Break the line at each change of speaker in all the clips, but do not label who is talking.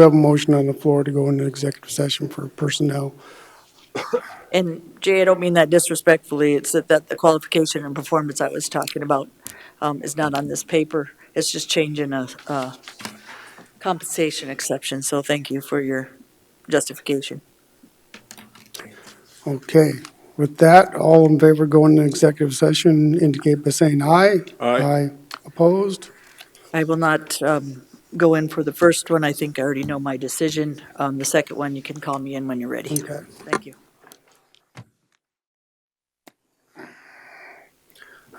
We have a motion on the floor to go into executive session for personnel.
And Jay, I don't mean that disrespectfully, it's that, that the qualification and performance I was talking about um, is not on this paper. It's just changing a, uh compensation exception, so thank you for your justification.
Okay, with that, all in favor going into executive session indicate by saying aye.
Aye.
Opposed?
I will not um, go in for the first one, I think I already know my decision. Um, The second one, you can call me in when you're ready.
Okay.
Thank you.
I'd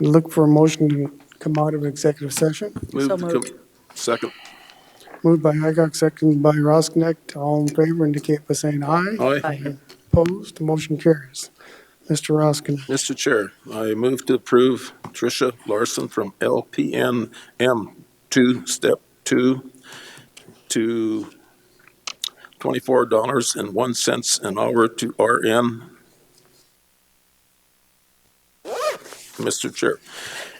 Look for a motion to come out of executive session.
Move
So
to
moved.
com- Second.
Moved by Hickok, seconded by Rosknecht. All in favor indicate by saying aye.
Aye.
Bye.
Opposed? Motion carries. Mr. Rosknecht,
Mr. Chair, I move to approve Tricia Larson from LPN M two, step two, to twenty-four dollars and one cents an hour to RN. Mr. Chair,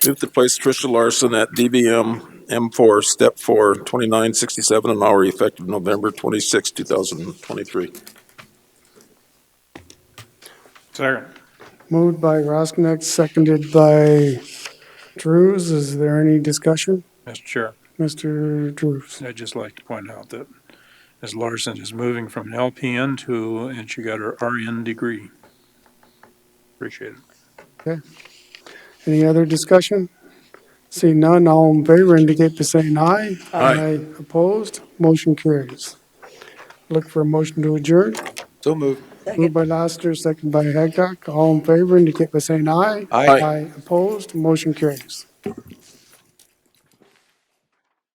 move to place Tricia Larson at DBM M four, step four, twenty-nine sixty-seven an hour effective November twenty-six, two thousand and twenty-three.
Second.
moved by Rosknecht, seconded by Drews. Is there any discussion?
Mr. Chair,
Mr. Drews?
I'd just like to point out that Ms. Larson is moving from an LPN to, and she got her RN degree. Appreciate it.
Any other discussion? Seeing none, all in favor indicate by saying aye.
Aye.
Opposed, motion carries. Look for a motion to adjourn.
So moved.
Moved by Laster, second by Hancock. All in favor indicate by saying aye.
Aye.
Opposed, motion carries.